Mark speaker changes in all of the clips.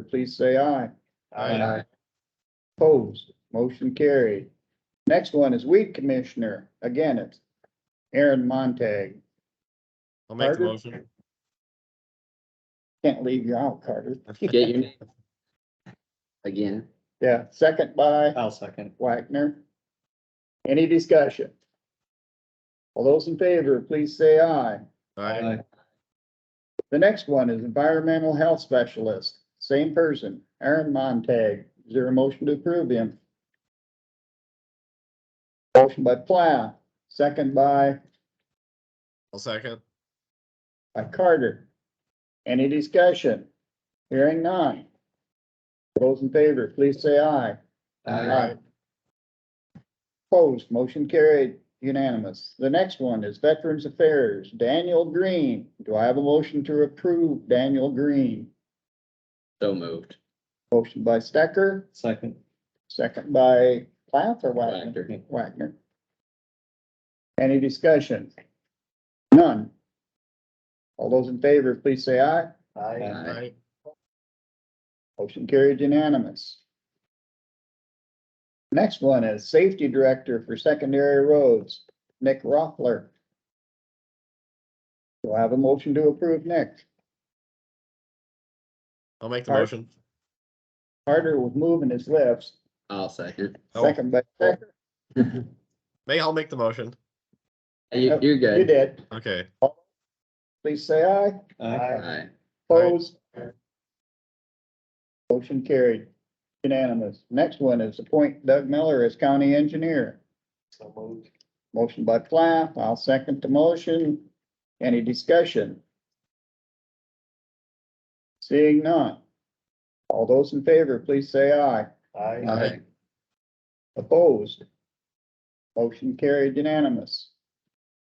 Speaker 1: please say aye.
Speaker 2: Aye.
Speaker 1: Opposed, motion carried. Next one is weed commissioner. Again, it's Aaron Montag.
Speaker 2: I'll make the
Speaker 1: Carter?
Speaker 2: motion.
Speaker 1: Can't leave you out, Carter.
Speaker 3: Get your name. Again,
Speaker 1: Yeah, second by
Speaker 4: I'll second.
Speaker 1: Wagner. Any discussion? All those in favor, please say aye.
Speaker 2: Aye.
Speaker 1: The next one is environmental health specialist, same person, Aaron Montag. Is there a motion to approve him? Motion by Plow, second by,
Speaker 2: I'll second.
Speaker 1: by Carter. Any discussion? Hearing none. Those in favor, please say aye.
Speaker 4: Aye.
Speaker 1: Opposed, motion carried unanimous. The next one is Veterans Affairs, Daniel Green. Do I have a motion to approve Daniel Green?
Speaker 3: so moved.
Speaker 1: Motion by Stecker,
Speaker 4: Second.
Speaker 1: second by Plath or Wagner?
Speaker 3: Factor.
Speaker 1: Wagner. Any discussion? None. All those in favor, please say aye.
Speaker 4: Aye.
Speaker 2: Aye.
Speaker 1: Motion carried unanimous. Next one is Safety Director for Secondary Roads, Nick Rothler. Do I have a motion to approve Nick?
Speaker 2: I'll make the
Speaker 1: Aye.
Speaker 2: motion.
Speaker 1: Carter was moving his lips,
Speaker 3: I'll second.
Speaker 2: Oh.
Speaker 1: second by Stecker.
Speaker 2: May, I'll make the motion.
Speaker 3: You, you're
Speaker 1: You
Speaker 3: good.
Speaker 1: did.
Speaker 2: Okay,
Speaker 1: Please say aye.
Speaker 4: Aye.
Speaker 3: Alright,
Speaker 1: Opposed? Motion carried unanimous. Next one is appoint Doug Miller as County Engineer.
Speaker 4: So moved.
Speaker 1: Motion by Plath, I'll second the motion. Any discussion? Seeing none. All those in favor, please say aye.
Speaker 4: Aye.
Speaker 1: Opposed? Motion carried unanimous.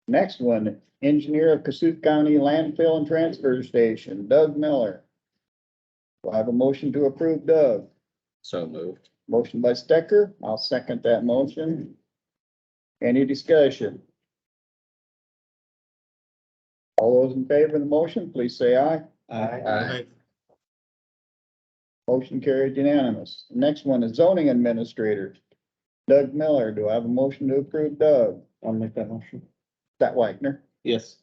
Speaker 1: Next one, engineer of Cassuth County landfill and transfer station, Doug Miller. Do I have a motion to approve Doug?
Speaker 3: so moved.
Speaker 1: Motion by Stecker, I'll second that motion. Any discussion? All those in favor of the motion, please say aye.
Speaker 4: Aye.
Speaker 2: Aye.
Speaker 1: Motion carried unanimous. Next one is zoning administrator. Doug Miller, do I have a motion to approve Doug?
Speaker 4: I'll make that motion.
Speaker 1: That Wagner,
Speaker 4: Yes.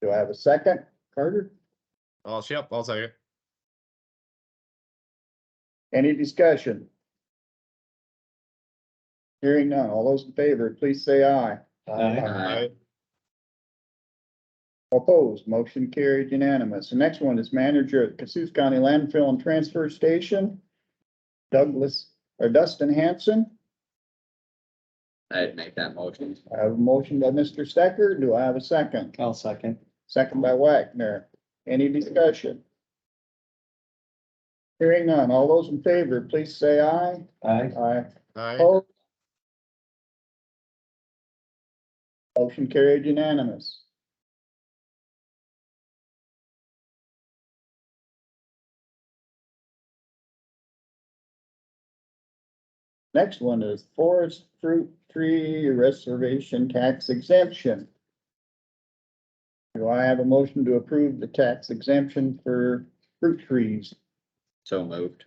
Speaker 1: do I have a second? Carter,
Speaker 2: I'll, yep, I'll second.
Speaker 1: any discussion? Hearing none. All those in favor, please say aye.
Speaker 4: Aye.
Speaker 3: Aye,
Speaker 1: Opposed, motion carried unanimous. The next one is manager at Cassuth County Landfill and Transfer Station. Douglas, or Dustin Hanson.
Speaker 3: I'd make that motion.
Speaker 1: I have a motion by Mr. Stecker. Do I have a second?
Speaker 4: I'll second.
Speaker 1: Second by Wagner. Any discussion? Hearing none. All those in favor, please say aye.
Speaker 4: Aye.
Speaker 1: Aye.
Speaker 2: Aye.
Speaker 1: Opposed? Motion carried unanimous. Next one is forest fruit tree reservation tax exemption. Do I have a motion to approve the tax exemption for fruit trees?
Speaker 3: So moved.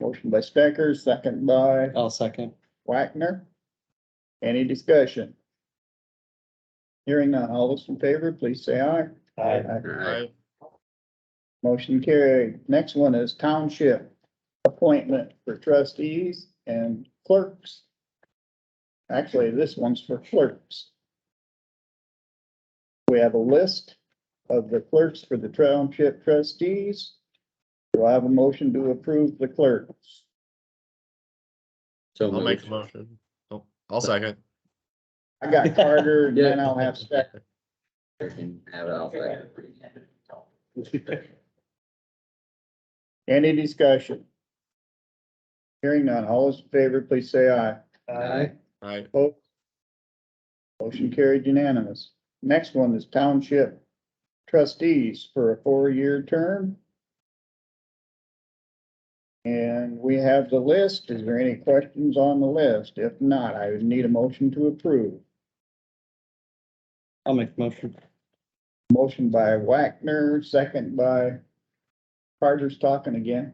Speaker 1: Motion by Stecker, second by
Speaker 4: I'll second.
Speaker 1: Wagner. Any discussion? Hearing none, all those in favor, please say aye.
Speaker 2: Aye.
Speaker 1: Motion carried. Next one is township appointment for trustees and clerks. Actually, this one's for clerks. We have a list of the clerks for the township trustees. Do I have a motion to approve the clerks?
Speaker 3: So
Speaker 2: I'll make the
Speaker 3: moved.
Speaker 2: motion. Oh, I'll second.
Speaker 1: I got Carter, and then I'll have Stecker.
Speaker 3: You can Have it all second.
Speaker 1: Any discussion? Hearing none, all those in favor, please say aye.
Speaker 3: Aye,
Speaker 2: Aye.
Speaker 1: Motion carried unanimous. Next one is township trustees for a four-year term. And we have the list. Is there any questions on the list? If not, I would need a motion to approve.
Speaker 4: I'll make the motion.
Speaker 1: Motion by Wagner, second by Carter's talking again.